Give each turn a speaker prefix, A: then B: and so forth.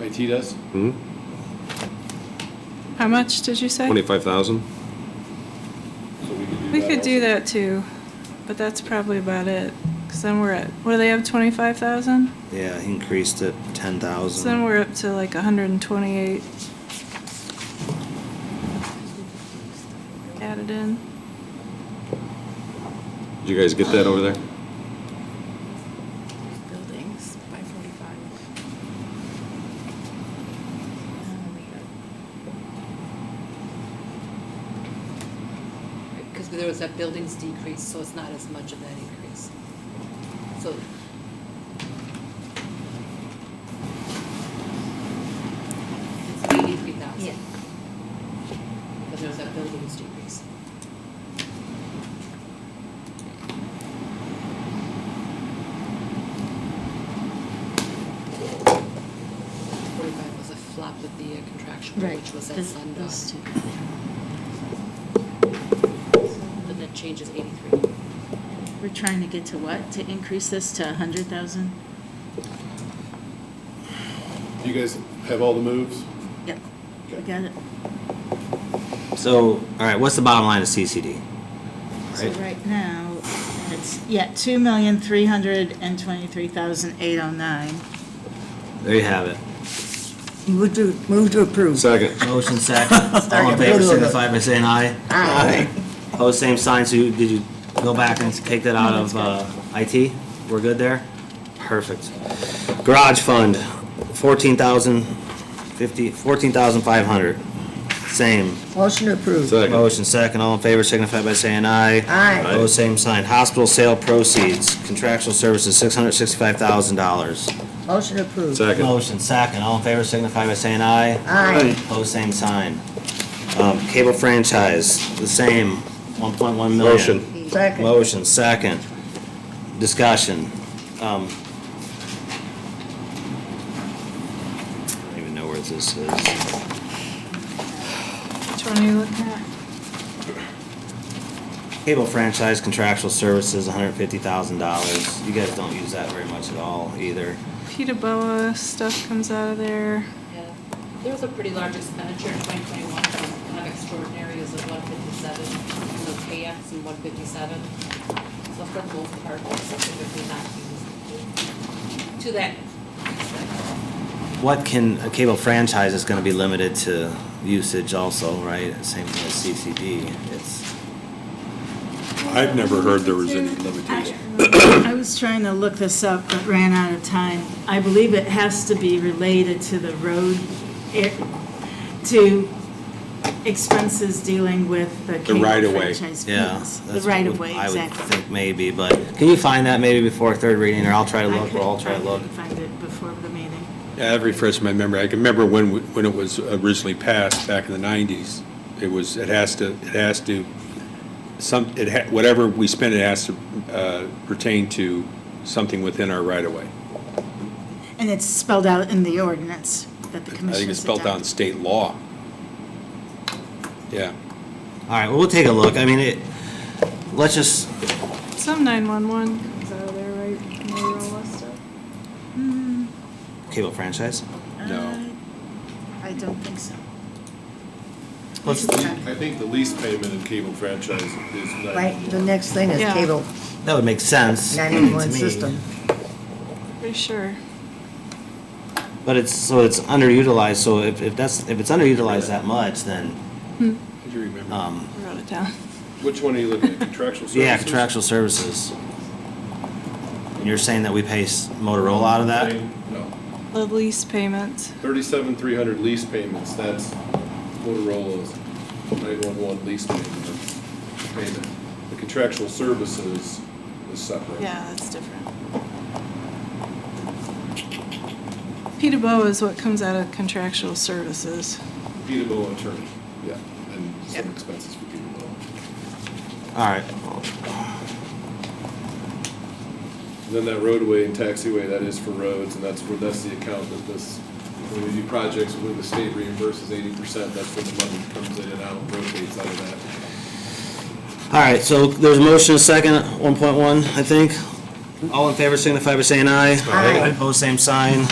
A: IT does?
B: Hmm?
C: How much did you say?
B: 25,000?
A: So we could do that.
C: We could
A: also.
C: do that too, but that's probably about it. Cause then we're at, what do they have, twenty-five thousand?
D: Yeah, he increased it
C: So then
D: ten thousand.
C: we're up to like hundred and twenty-eight. Added in.
B: Did you guys get that over there?
E: buildings by forty-five. Because there was that buildings decrease, so it's not as much of that increase. So, it's eighty-three thousand. But there was that buildings decrease. Forty-five was a flop with the uh, contractual,
F: Right.
E: which was at
F: This- those
E: Sundog.
F: two.
E: But that changes eighty-three.
F: We're trying to get to what? To increase this to a hundred thousand?
A: You guys have all the moves?
F: Yep. We got it.
D: So, all right, what's the bottom line of CCD?
F: So
D: Right.
F: right now, it's, yeah, two million, three hundred and twenty-three thousand, eight oh nine.
D: There you have it.
G: Move to, move to approve.
B: Second.
D: Motion second. All in favor, signify by saying aye. Aye. Pose same sign, so you- did you go back and take that out of uh, IT? We're good there? Perfect. Garage fund, fourteen thousand fifty, fourteen thousand five hundred. Same.
G: Motion to approve.
B: Second.
D: Motion second, all in favor signify by saying aye.
G: Aye.
D: Oh, same sign. Hospital sale proceeds, contractual services, six hundred sixty-five thousand dollars.
G: Motion to approve.
B: Second.
D: Motion second, all in favor signify by saying aye.
G: Aye.
D: Oh, same sign. Um, cable franchise, the same, one point one million.
B: Motion.
G: Second.
D: Motion second. Discussion. Um, I don't even know where this is.
C: Which one are you looking at?
D: Cable franchise contractual services, hundred fifty thousand dollars. You guys don't use that very much at all either.
C: Peterboa stuff comes out of there.
E: Yeah, there was a pretty large expenditure in 2021, kind of extraordinary, is of 157, and those payouts in 157. So for the most part, that's typically not used to that extent.
D: What can, a cable franchise is gonna be limited to usage also, right? Same thing as CCD. It's,
A: I've never heard there was any limitation.
F: I was trying to look this up, but ran out of time. I believe it has to be related to the road, air- to expenses dealing with the cable
B: right-of-way.
F: franchise
D: yeah.
F: fees. The
D: that's
F: right of
D: what
F: way,
D: I would
F: exactly.
D: think maybe, but can you find that maybe before third reading, or I'll try to
F: I
D: look, or I'll try
F: couldn't
D: to
F: find
D: look.
F: it- Find it before the meeting.
A: Yeah, I've refreshed my memory. I can remember when, we- when it was originally passed back in the nineties. It was, it has to, it has to, some, it ha, whatever we spend, it has to, uh, pertain to something within our right of way.
F: And it's spelled out in the ordinance that the
A: I
F: commission.
A: think it's spelled out in state law. Yeah.
D: All right, well, we'll take a look. I mean, it, let's just,
C: Some nine-one-one comes out of there, right? Motorola stuff.
D: cable franchise?
A: No.
F: Mm, I don't think so.
D: Let's,
H: I think the lease payment in cable franchise is
G: Right,
H: ninety.
G: the next thing is
C: Yeah.
G: cable
D: that would make sense. to
G: 911
D: me.
G: system.
C: Pretty sure.
D: But it's, so it's underutilized, so if, if that's, if it's underutilized that much, then,
A: Did you remember?
D: um,
C: I wrote it down.
H: Which one are you looking at, contractual services?
D: yeah, contractual services. And you're saying that we pay s- Motorola out of that?
H: No,
C: The lease payments.
H: thirty-seven, three hundred lease payments, that's Motorola's nine-one-one lease payment, payment. The contractual services is separate.
C: Yeah, that's different. Peterboa is what comes out of contractual services.
H: Peterbilt attorney, yeah, and some expenses for Peterbilt.
D: All right,
H: And Then that roadway and taxiway, that is for roads, and that's where, that's the account that this, when we do projects where the state reimburses eighty percent, that's where the money comes in and out, rotates out of that.
D: all right, so there's a motion, a second, one point one, I think. All in favor signify by saying aye.
G: Aye.
D: Opposed, same sign.